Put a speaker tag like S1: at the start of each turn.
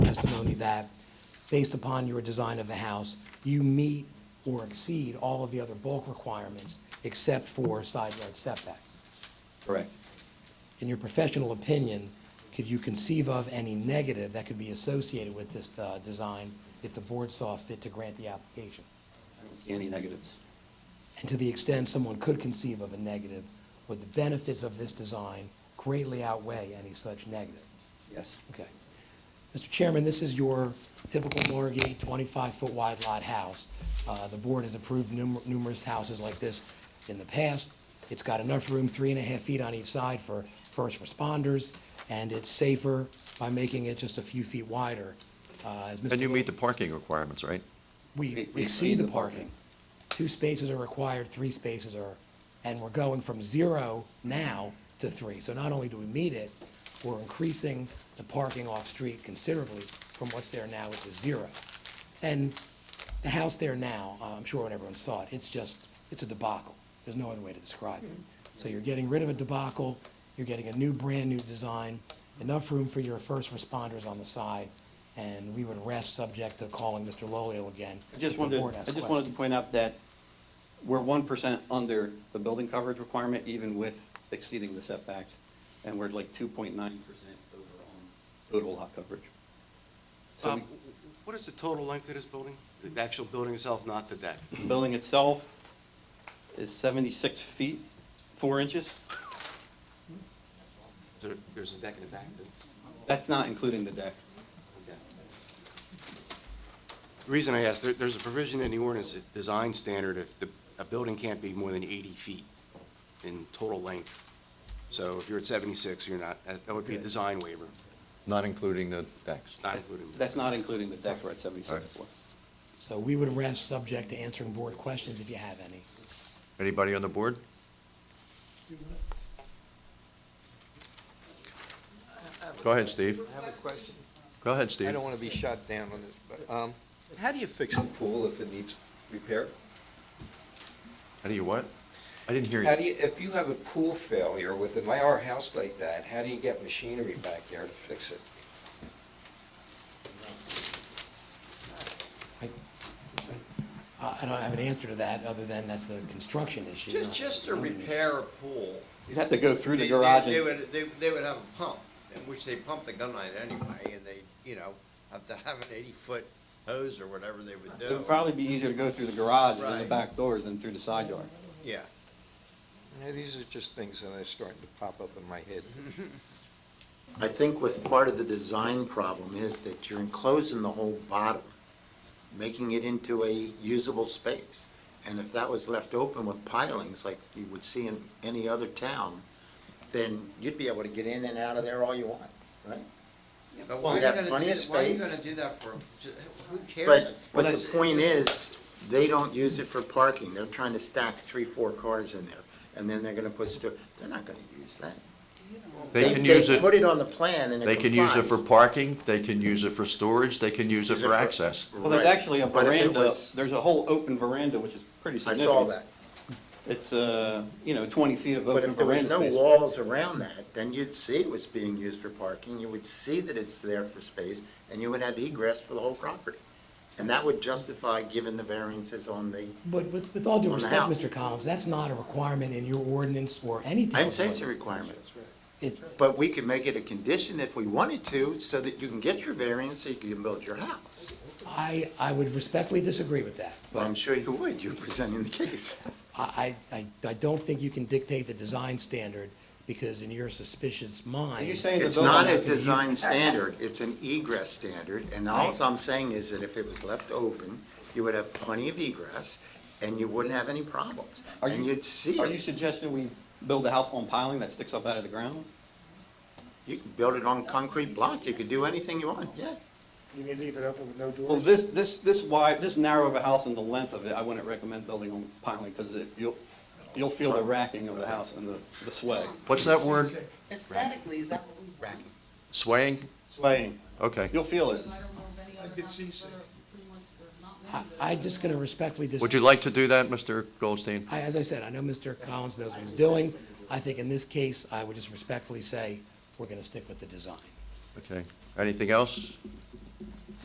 S1: that, based upon your design of the house, you meet or exceed all of the other bulk requirements except for side yard setbacks.
S2: Correct.
S1: In your professional opinion, could you conceive of any negative that could be associated with this uh, design if the board saw fit to grant the application?
S2: I don't see any negatives.
S1: And to the extent someone could conceive of a negative, would the benefits of this design greatly outweigh any such negative?
S2: Yes.
S1: Okay. Mr. Chairman, this is your typical Norgate 25-foot wide lot house. Uh, The board has approved numer- numerous houses like this in the past. It's got enough room, three and a half feet on each side for first responders, and it's safer by making it just a few feet wider. Uh, As
S3: And
S1: Mr.
S3: you meet the parking requirements, right?
S1: We
S2: We- we
S1: exceed the parking. Two spaces are required, three spaces are, and we're going from zero now to three. So not only do we meet it, we're increasing the parking off-street considerably from what's there now, which is zero. And the house there now, uh, I'm sure when everyone saw it, it's just, it's a debacle. There's no other way to describe it. So you're getting rid of a debacle, you're getting a new, brand-new design, enough room for your first responders on the side, and we would rest subject to calling Mr. Lolio again.
S2: I
S1: if
S2: just
S1: the
S2: wanted,
S1: board has
S2: I just wanted to
S1: questions.
S2: point out that we're one percent under the building coverage requirement, even with exceeding the setbacks, and we're like two point nine percent over on total lot coverage. So
S4: Um, What is the total length of this building? The actual building itself, not the deck?
S2: the building itself is seventy-six feet, four inches.
S4: Is there- There's a deck in the back? that-
S2: That's not including the deck.
S4: okay. The reason I ask, there- there's a provision in the ordinance, that design standard, if the, a building can't be more than 80 feet in total length. So if you're at 76, you're not, that that would be a design waiver,
S3: Not including the decks.
S4: not including.
S2: That's not including the deck, we're at seventy-six
S3: Alright.
S2: four.
S1: So we would rest subject to answering board questions if you have any.
S3: Anybody on the board? Go ahead, Steve.
S5: I have a question.
S3: Go ahead,
S5: I
S3: Steve.
S5: don't want to be shot down on this, but, um, how do you fix the pool if it needs repair?
S3: How do you what? I didn't hear
S5: How
S3: you.
S5: do you, if you have a pool failure with an IR house like that, how do you get machinery back there to fix it?
S1: I- I I don't have an answer to that, other than that's the construction issue.
S6: Ju-
S1: not
S6: Just
S1: the
S6: to
S1: building issue.
S6: repair a pool.
S2: You'd have to go through
S6: they-
S2: the
S6: they-
S2: garage
S6: They
S2: and,
S6: would, they, they would have a pump, in which they pump the gun line anyway, and they, you know, have to have an eighty-foot hose or whatever they would
S2: it
S6: do.
S2: would probably be easier to go through the garage and the
S6: Right.
S2: back doors than through the side yard.
S6: Yeah.
S5: Yeah, these are just things that are starting to pop up in my head.
S7: I think with part of the design problem is that you're enclosing the whole bottom, making it into a usable space. And if that was left open with pilings like you would see in any other town, then you'd be able to get in and out of there all you want, right?
S6: Yeah, But why are you
S7: We'd have
S6: gonna
S7: plenty
S6: do,
S7: of
S6: that- why are you
S7: space.
S6: gonna do that for, ju- who cares?
S7: But, but
S6: It's-
S7: the
S6: it's-
S7: point is, they don't use it for parking. They're trying to stack three, four cars in there. And then they're gonna put sto, they're not gonna use that.
S3: They can use
S7: They put
S3: it,
S7: it on the plan and it
S3: they can use it for
S7: complies.
S3: parking, they can use it for storage, they can use it for access.
S2: Well, there's
S7: Right.
S2: actually a
S7: But if it
S2: veranda,
S7: was-
S2: there's a whole open veranda, which is pretty
S7: I
S2: significant.
S7: saw that.
S2: It's, uh, you know, 20 feet of
S7: But
S2: open
S7: if there was
S2: veranda
S7: no
S2: space.
S7: walls around that, then you'd see it was being used for parking, you would see that it's there for space, and you would have egress for the whole property. And that would justify giving the variances on the,
S1: But with, with all due
S7: On the
S1: respect,
S7: house.
S1: Mr. Collins, that's not a requirement in your ordinance or any town.
S7: I didn't say it's a requirement.
S1: It's,
S7: But we could make it a condition if we wanted to, so that you can get your variance, so you can build your house.
S1: I, I would respectfully disagree with that.
S7: Well, I'm sure you would, you're presenting the case.
S1: I, I, I- I don't think you can dictate the design standard, because in your suspicious mind.
S2: you saying- In the
S7: It's not a
S2: building.
S7: design standard, it's an egress standard, and all I'm saying is that if it was left open, you would have plenty of egress, and you wouldn't have any problems,
S2: Are
S7: and
S2: you-
S7: you'd see
S2: Are you
S7: it.
S2: suggesting we build a house on piling that sticks up out of the ground?
S7: You could build it on concrete block, you could do anything you want, yeah.
S8: You mean leave it open with no doors?
S2: Well, this, this, this wide, this narrow of a house and the length of it, I wouldn't recommend building on piling because you'll, you'll feel the racking of the house and the, the sway.
S3: What's that word?
S9: Aesthetically, is that what we want?
S3: Swaying?
S2: Swaying.
S3: Okay.
S2: You'll feel it.
S9: I don't know of any other
S8: could see
S9: houses
S8: so.
S9: that are pretty much, they're not many
S1: I,
S9: that are-
S1: I'm just gonna respectfully disagree.
S3: Would you like to do that, Mr. Goldstein?
S1: I, as I said, I know Mr. Collins knows what he's doing. I think in this case, I would just respectfully say, we're gonna stick with the design.
S3: Okay. Anything else?